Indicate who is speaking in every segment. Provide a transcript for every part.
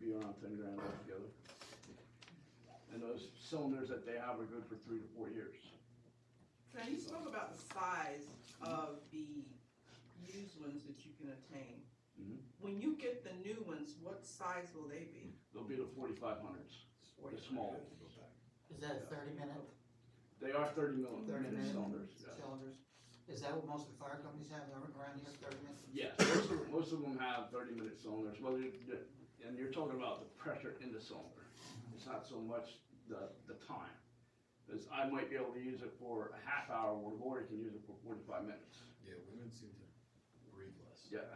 Speaker 1: be on thin ground altogether. And those cylinders that they have are good for three to four years.
Speaker 2: Now, you spoke about the size of the used ones that you can obtain.
Speaker 1: Mhm.
Speaker 2: When you get the new ones, what size will they be?
Speaker 1: They'll be the forty-five hundreds, the small.
Speaker 3: Is that a thirty minute
Speaker 1: They are thirty millimeter
Speaker 3: 30 minute.
Speaker 1: cylinders, yes.
Speaker 3: cylinders? Is that what most of the fire companies have ar- around here, thirty minutes?
Speaker 1: Yes, most of, most of them have thirty minute cylinders, well, you, the- and you're talking about the pressure in the cylinder. It's not so much the, the time, cause I might be able to use it for a half hour, where Lori can use it for forty-five minutes,
Speaker 4: Yeah, women seem to breathe less.
Speaker 1: yeah.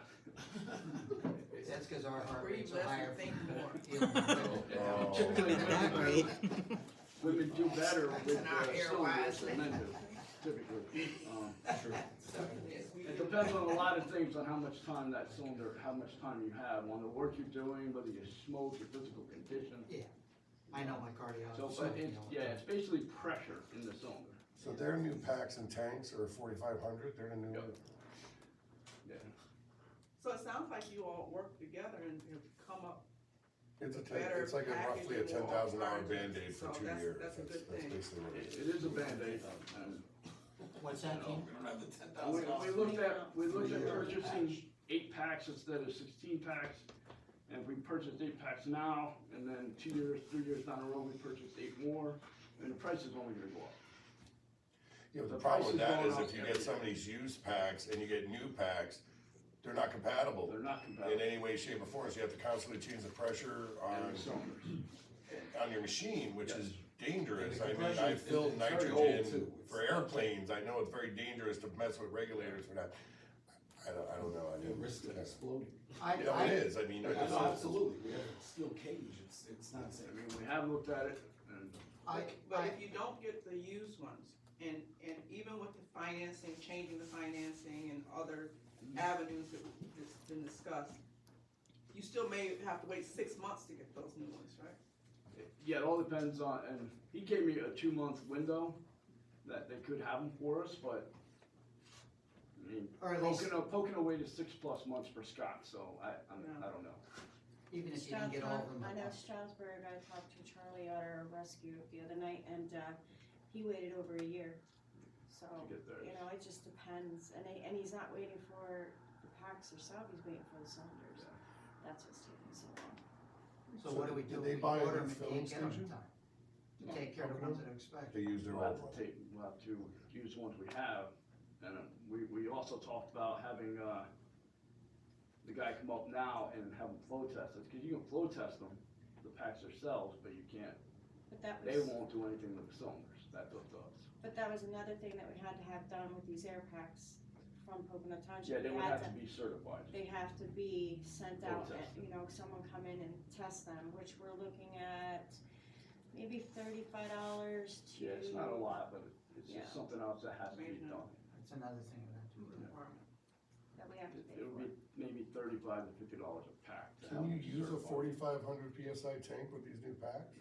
Speaker 3: That's because our heart
Speaker 2: Breathe
Speaker 3: rate's are
Speaker 2: less
Speaker 3: higher.
Speaker 2: and think more.
Speaker 1: Yeah, Typically, women, women do better with
Speaker 2: That's not
Speaker 1: the cylinders than men do, typically. Um,
Speaker 4: True.
Speaker 2: Yes, we
Speaker 1: It
Speaker 2: do.
Speaker 1: depends on a lot of things, on how much time that cylinder, how much time you have, on the work you're doing, whether you smoke, your physical condition.
Speaker 3: I know my
Speaker 1: So, but
Speaker 3: cardiologist. told me
Speaker 1: it's,
Speaker 3: all the
Speaker 1: yeah,
Speaker 3: time.
Speaker 1: it's basically pressure in the cylinder.
Speaker 5: So their new packs and tanks are forty-five hundred, they're the new,
Speaker 1: Yep.
Speaker 2: So it sounds like you all work together and have come up
Speaker 5: it's a, ten-
Speaker 2: Better
Speaker 5: it's like a roughly a
Speaker 2: packaging,
Speaker 5: ten
Speaker 2: more
Speaker 5: thousand dollar
Speaker 2: alternatives.
Speaker 5: Band-Aid for
Speaker 2: So
Speaker 5: two
Speaker 2: that's-
Speaker 5: years.
Speaker 2: that's a good thing.
Speaker 5: basically what
Speaker 1: It,
Speaker 5: it
Speaker 1: it is a Band-Aid, and
Speaker 3: What's that, Ken?
Speaker 1: we, we looked at, we looked at purchasing eight packs instead of sixteen packs. And if we purchased eight packs now, and then two years, three years down the road, we purchased eight more, and the price is only gonna go up.
Speaker 5: Yeah, but
Speaker 1: The
Speaker 5: the problem with
Speaker 1: price is
Speaker 5: that is
Speaker 1: going up
Speaker 5: if you
Speaker 1: every
Speaker 5: get some of these used packs and you get new packs, they're not compatible
Speaker 1: They're not
Speaker 5: in
Speaker 1: compatible,
Speaker 5: any way, shape or form, so you have to constantly change the pressure
Speaker 1: and
Speaker 5: on,
Speaker 1: the cylinders.
Speaker 5: on your machine, which is dangerous.
Speaker 4: And the
Speaker 5: I mean,
Speaker 4: compression
Speaker 5: I
Speaker 4: is-
Speaker 5: filled
Speaker 4: it's very old,
Speaker 5: nitrogen
Speaker 4: too. It's-
Speaker 5: for airplanes, I know it's very dangerous to mess with regulators for that. I don't, I don't know, I
Speaker 4: The risk of
Speaker 5: didn't.
Speaker 4: exploding.
Speaker 3: I,
Speaker 5: You know, it
Speaker 3: I,
Speaker 5: is, I mean,
Speaker 4: No,
Speaker 5: it's-
Speaker 4: Absolutely, we have a steel cage, it's, it's not safe.
Speaker 1: I mean, we have looked at it, and
Speaker 3: I,
Speaker 2: But
Speaker 3: I,
Speaker 2: if you don't get the used ones, and, and even with the financing, changing the financing and other avenues that has been discussed, you still may have to wait six months to get those new ones, right?
Speaker 1: Yeah, it all depends on, and he gave me a two month window that they could have them for us, but. I mean,
Speaker 3: Or at least-
Speaker 1: poking, a- poking away to six plus months for Scott, so I, I'm- I don't know.
Speaker 3: even if you didn't get all of them.
Speaker 6: I know Stroudsburg, I talked to Charlie at our rescue the other night, and, uh, he waited over a year, so,
Speaker 1: To get theirs.
Speaker 6: you know, it just depends, and he, and he's not waiting for the packs herself, he's waiting for the cylinders.
Speaker 1: Yeah.
Speaker 6: That's what's taking so long.
Speaker 3: So what do we
Speaker 5: Did
Speaker 3: do?
Speaker 5: they
Speaker 3: We
Speaker 5: buy a
Speaker 3: order
Speaker 5: new
Speaker 3: 'em and
Speaker 5: filling
Speaker 3: can't get 'em in
Speaker 5: station?
Speaker 3: time. To take care of the ones that are expected.
Speaker 5: they use their
Speaker 1: We'll have
Speaker 5: old
Speaker 1: to
Speaker 5: one.
Speaker 1: take, we'll have to use the ones we have, and uh, we, we also talked about having, uh, the guy come up now and have them flow tested, cause you can flow test them, the packs themselves, but you can't,
Speaker 6: But that
Speaker 1: they
Speaker 6: was,
Speaker 1: won't do anything with the cylinders, that's up to us.
Speaker 6: but that was another thing that we had to have done with these air packs from Pocono Township.
Speaker 1: Yeah, they
Speaker 6: We
Speaker 1: would
Speaker 6: had
Speaker 1: have to be certified.
Speaker 6: they have to be sent
Speaker 1: They'll
Speaker 6: out,
Speaker 1: test
Speaker 6: and, you know, someone come in and test them, which we're looking at maybe thirty-five dollars to.
Speaker 1: Yeah, it's not a lot, but it's
Speaker 6: Yeah.
Speaker 1: just something else that has to be
Speaker 2: Maintenance.
Speaker 1: done.
Speaker 3: That's another thing we have to do.
Speaker 6: That we have to pay
Speaker 1: It would
Speaker 6: for.
Speaker 1: be maybe thirty-five to fifty dollars a pack. to have
Speaker 5: Can you
Speaker 1: them
Speaker 5: use a
Speaker 1: certified.
Speaker 5: forty-five hundred PSI tank with these new packs?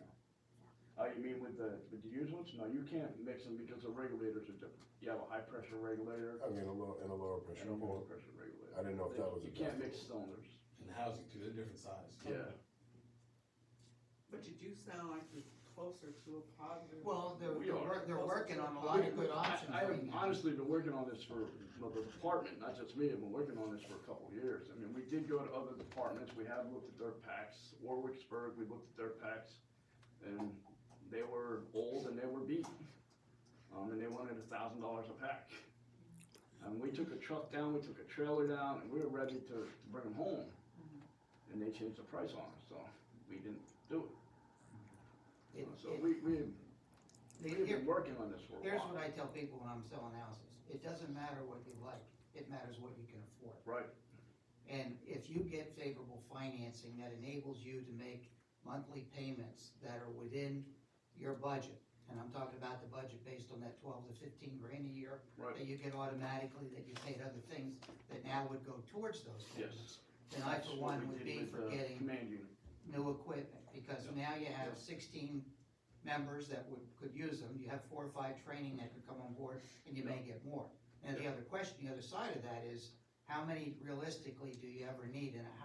Speaker 1: Oh, you mean with the, with the used ones? No, you can't mix them because the regulators are different. You have a high pressure regulator
Speaker 5: I mean, a low, and a lower pressure.
Speaker 1: and a lower pressure regulator.
Speaker 5: I didn't know if that was.
Speaker 1: You
Speaker 5: a
Speaker 1: can't mix cylinders,
Speaker 4: And housing too, they're different size.
Speaker 1: yeah.
Speaker 2: But you do sound like you're closer to a positive.
Speaker 3: Well, they're,
Speaker 1: We
Speaker 3: they're,
Speaker 1: are.
Speaker 3: wor- they're working on a lot of good
Speaker 1: I-
Speaker 3: options
Speaker 1: I have
Speaker 3: right now.
Speaker 1: honestly been working on this for, well, the department, not just me, I've been working on this for a couple of years. I mean, we did go to other departments, we have looked at their packs, Warwicksburg, we looked at their packs, and they were old and they were beat. Um, and they wanted a thousand dollars a pack. And we took a truck down, we took a trailer down, and we were ready to, to bring them home.
Speaker 3: Mm-hmm.
Speaker 1: And they changed the price on us, so we didn't do it.
Speaker 3: It-
Speaker 1: So
Speaker 3: it-
Speaker 1: we, we,
Speaker 3: they-
Speaker 1: we've
Speaker 3: here-
Speaker 1: been working on this for a while.
Speaker 3: Here's what I tell people when I'm selling houses, it doesn't matter what you like, it matters what you can afford.
Speaker 1: Right.
Speaker 3: And if you get favorable financing that enables you to make monthly payments that are within your budget, and I'm talking about the budget based on that twelve to fifteen grand a year
Speaker 1: Right.
Speaker 3: that you get automatically, that you paid other things that now would go towards those
Speaker 1: Yes.
Speaker 3: payments. Then I for
Speaker 1: That's what
Speaker 3: one
Speaker 1: we
Speaker 3: would
Speaker 1: did
Speaker 3: be
Speaker 1: with
Speaker 3: for
Speaker 1: the
Speaker 3: getting
Speaker 1: Command unit,
Speaker 3: new equipment, because
Speaker 1: Yep.
Speaker 3: now you
Speaker 1: Yep.
Speaker 3: have sixteen members that would, could use them, you have four or five training that could come on board, and you may get more. And the other question, the other side of that is, how many realistically do you ever need in a house?